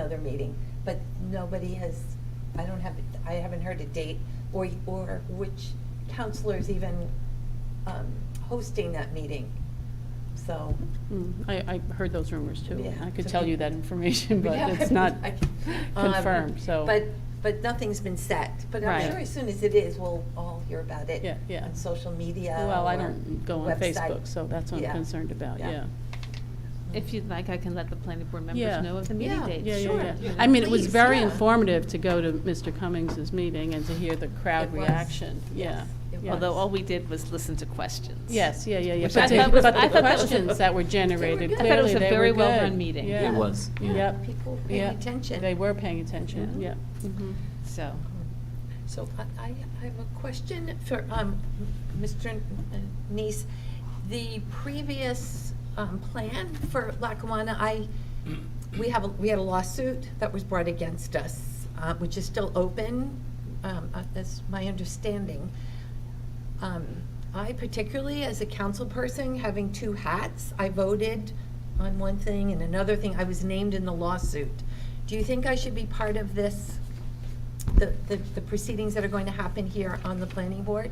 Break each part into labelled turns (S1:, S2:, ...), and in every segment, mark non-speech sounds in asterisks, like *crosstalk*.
S1: another meeting, but nobody has, I don't have, I haven't heard a date or, or which counselor's even um, hosting that meeting, so.
S2: Mm, I, I heard those rumors too.
S1: Yeah.
S2: I could tell you that information,
S1: *laughs*
S2: but
S1: Yeah,
S2: it's not
S1: I- um,
S2: confirmed, so.
S1: But, but nothing's been set, but I'm
S2: Right.
S1: sure as soon as it is, we'll all hear about it.
S2: Yeah, yeah.
S1: On social media
S2: Well, I
S1: or
S2: don't go on
S1: website.
S2: Facebook, so that's what
S1: Yeah.
S2: I'm concerned about,
S1: Yeah.
S2: yeah.
S3: If you'd like, I can let the planning board
S2: Yeah.
S3: members know of the meeting
S1: Yeah.
S3: dates.
S2: Yeah,
S1: Sure.
S2: yeah,
S1: You
S2: yeah.
S1: know,
S2: I mean, it was
S1: please,
S2: very
S1: yeah.
S2: informative to go to Mr. Cummings's meeting and to hear the crowd
S1: It was,
S2: reaction, yeah.
S1: yes, it
S2: yeah.
S1: was.
S3: Although all we did was listen to questions.
S2: Yes, yeah, yeah, yeah.
S3: Which I
S2: But the-
S3: thought was-
S2: but
S3: I
S2: the
S3: thought that was a-
S2: questions that were generated,
S1: good. I
S2: clearly
S1: thought it was
S3: a
S2: they
S3: very
S2: were
S3: well-run
S2: good.
S3: meeting. It
S2: Yeah.
S4: It was, yeah.
S2: Yep.
S1: Mm-hmm. People paying
S2: Yeah.
S1: attention.
S2: They were paying attention,
S1: Yeah.
S2: yeah.
S3: Mm-hmm.
S2: Mhm.
S3: So,
S1: So I- I, I have a question for um, Mr. Nice. The previous um, plan for Lackawanna, I, we have, a- we had a lawsuit that was brought against us, uh, which is still open, um, uh, that's my understanding. Um, I particularly, as a council person, having two hats, I voted on one thing and another thing. I was named in the lawsuit. Do you think I should be part of this? the, the the proceedings that are going to happen here on the planning board?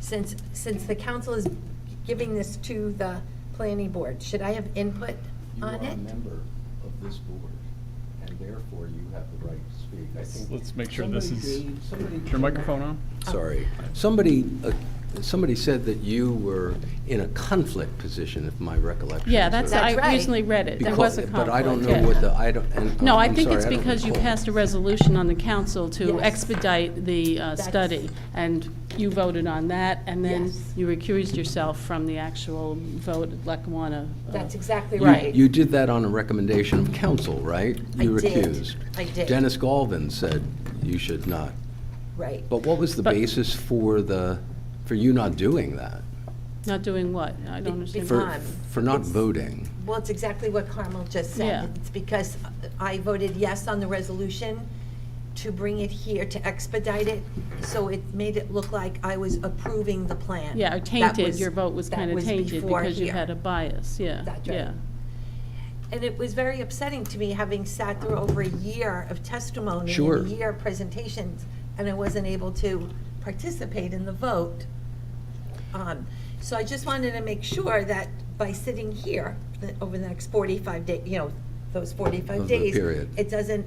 S1: Since, since the council is giving this to the planning board, should I have input
S5: You
S1: on
S5: are a
S1: it?
S5: member of this board, and therefore you have the right to speak. I think.
S6: Let's make sure this
S5: somebody
S6: is-
S5: gave- somebody
S6: Is your microphone on?
S1: Oh,
S4: Sorry.
S7: Somebody, uh, somebody said that you were in a conflict position, if my recollection is
S2: Yeah, that's,
S7: right.
S2: I
S1: That's right.
S2: recently read it, there
S7: Because-
S2: was a conflict.
S7: But I don't know
S2: yeah.
S7: what the, I don't, and.
S2: No, I
S7: Um, I'm
S2: think it's
S7: sorry, I don't
S2: because you
S7: recall.
S2: passed a resolution on the council to
S1: Yes.
S2: expedite the uh,
S1: That's-
S2: study, and you voted on that, and then
S1: Yes.
S2: you recused yourself from the actual vote at Lackawanna. uh,
S1: That's exactly
S2: you-
S1: right.
S7: You did that on a recommendation of council, right?
S1: I
S7: You
S1: did.
S7: recused.
S1: I did.
S7: Dennis Galvin said you should not.
S1: Right.
S7: But what was the
S2: But-
S7: basis for the, for you not doing that?
S2: Not doing what? I don't understand.
S7: For,
S1: Um,
S7: for not
S1: it's-
S7: voting?
S1: Well, it's exactly what Carmel just
S2: Yeah.
S1: said. It's because I voted yes on the resolution to bring it here, to expedite it, so it made it look like I was approving the plan.
S2: Yeah, or
S1: That
S2: tainted,
S1: was-
S2: your vote was
S1: that
S2: kind of tainted
S1: before
S2: because you
S1: here.
S2: had a bias, yeah,
S1: That's right.
S2: yeah.
S1: And it was very upsetting to me, having sat through over a year of testimony.
S7: Sure.
S1: And a year of presentations, and I wasn't able to participate in the vote. Um, So I just wanted to make sure that by sitting here, that over the next 45 days, you know, those 45
S7: Of the
S1: days.
S7: period.
S1: It doesn't,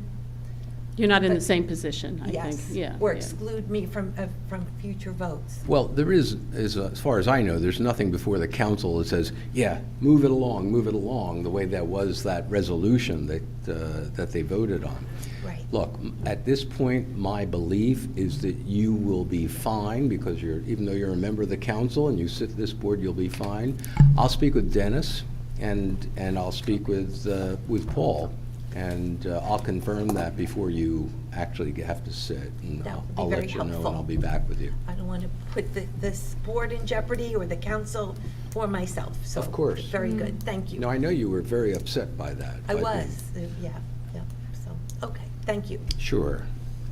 S2: You're not in the
S1: But-
S2: same position, I think,
S1: yes.
S2: yeah.
S1: Or
S2: yeah.
S1: exclude me from, uh, from future votes.
S7: Well, there is, is, as far as I know, there's nothing before the council that says, yeah, move it along, move it along, the way that was that resolution that, uh, that they voted on.
S1: Right.
S7: Look, m- at this point, my belief is that you will be fine, because you're, even though you're a member of the council and you sit this board, you'll be fine. I'll speak with Dennis, and, and I'll speak with, uh, with Paul, and uh, I'll confirm that before you actually have to sit, and
S1: That
S7: I'll
S1: would be
S7: I'll
S1: very
S7: let you know, and
S1: helpful.
S7: I'll be back with you.
S1: I don't want to put the- this board in jeopardy or the council or myself, so.
S7: Of course.
S1: Very
S2: Mm.
S1: good, thank you.
S7: No, I know you were very upset by that.
S1: I
S7: but-
S1: was, uh, yeah, yeah, so, okay, thank you.
S7: Sure.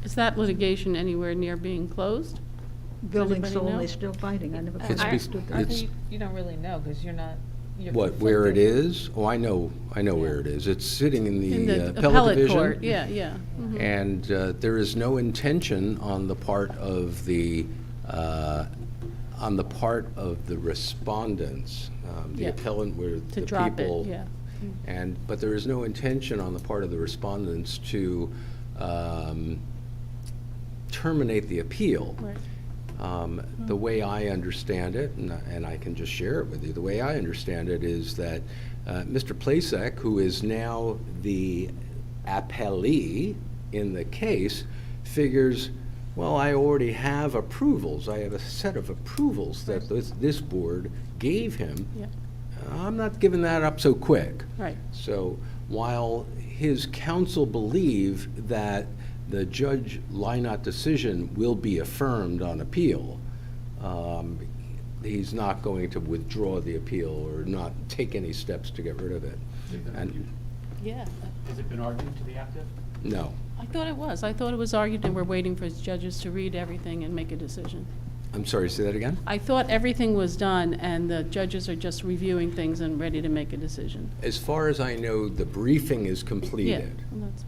S2: Is that litigation anywhere near being closed?
S8: Building's
S2: Anybody know?
S8: only still fighting, I never
S7: It's
S3: Ar-
S7: be-
S8: understood that.
S3: Arthur,
S7: it's-
S3: you- you don't really know, because you're not. you're
S7: What, where it
S3: conflicted.
S7: is? Oh, I know, I know where it is. It's sitting in
S2: In
S7: the uh,
S2: the
S7: appellate
S2: appellate
S7: division.
S2: court, yeah, yeah. mhm.
S7: And uh, there is no intention on the part of the, uh, on the part of the respondents, um, the
S2: Yeah.
S7: appellant were the
S2: To
S7: people.
S2: drop it, yeah.
S7: And, but there is no intention on the part of the respondents to um, terminate the appeal.
S2: Right.
S7: Um, The way I understand it, and I- and I can just share it with you, the way I understand it is that uh, Mr. Plasek, who is now the appellee in the case, figures, well, I already have approvals, I have a set of approvals that this- this board gave him.
S2: Yeah,
S7: I'm not giving that up so quick.
S2: right.
S7: So while his counsel believe that the Judge Lynott decision will be affirmed on appeal, um, he's not going to withdraw the appeal or not take any steps to get rid of it. And,
S2: Yeah,
S9: Has it been argued to the active?
S7: no.
S2: I thought it was. I thought it was argued, and we're waiting for judges to read everything and make a decision.
S7: I'm sorry, say that again?
S2: I thought everything was done, and the judges are just reviewing things and ready to make a decision.
S7: As far as I know, the briefing is
S2: Yeah,
S7: completed.
S2: well, that's-